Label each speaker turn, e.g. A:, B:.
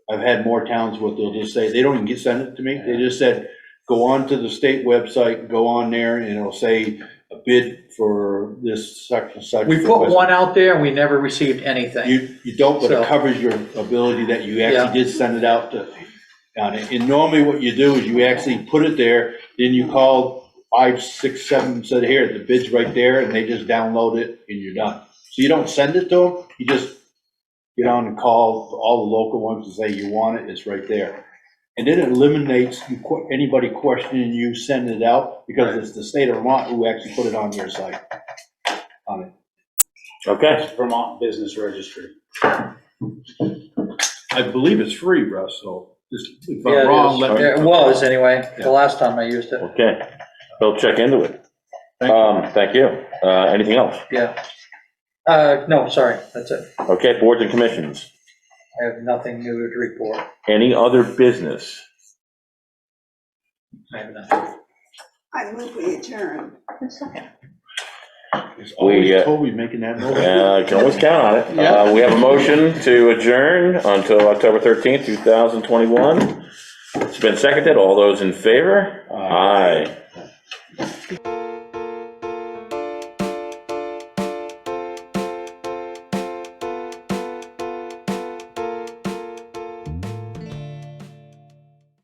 A: I've had more towns where they'll just say, they don't even get send it to me, they just said, go on to the state website, go on there, and it'll say a bid for this such and such.
B: We put
A: request."
B: one out there and we never received anything.
A: You, you don't, but it
B: So-
A: covers your ability that you
B: Yeah.
A: actually did send it out to, on it. And normally what you do is you actually put it there, then you call five, six, seven, said, here, the bid's right there, and they just download it and you're done. So you don't send it to them, you just get on and call all the local ones and say, you want it, it's right there. And then it eliminates you que- anybody questioning you sending it out, because it's the state of Vermont who actually put it on your site.
C: Okay,
D: Vermont Business Registry.
A: I believe it's free, Russ, so just- if
B: Yeah, it
A: I'm wrong,
B: is.
A: let me.
B: It was anyway,
A: Yeah.
B: the last time I used it.
C: okay. We'll check into it.
A: Thank you.
C: Um, thank you. Uh, anything else?
B: Uh, no, sorry, that's it.
C: Okay, boards and commissions.
B: I have nothing new to report.
C: Any other business?
B: I have nothing.
E: I move we adjourn.
A: It's always
C: We, uh,
A: Toby making that noise.
C: Uh, you can always count on it.
B: Yeah.
C: Uh, we have a motion to adjourn until October thirteenth, two thousand
A: Uh,
C: twenty-one. It's been seconded. All those in favor? Aye.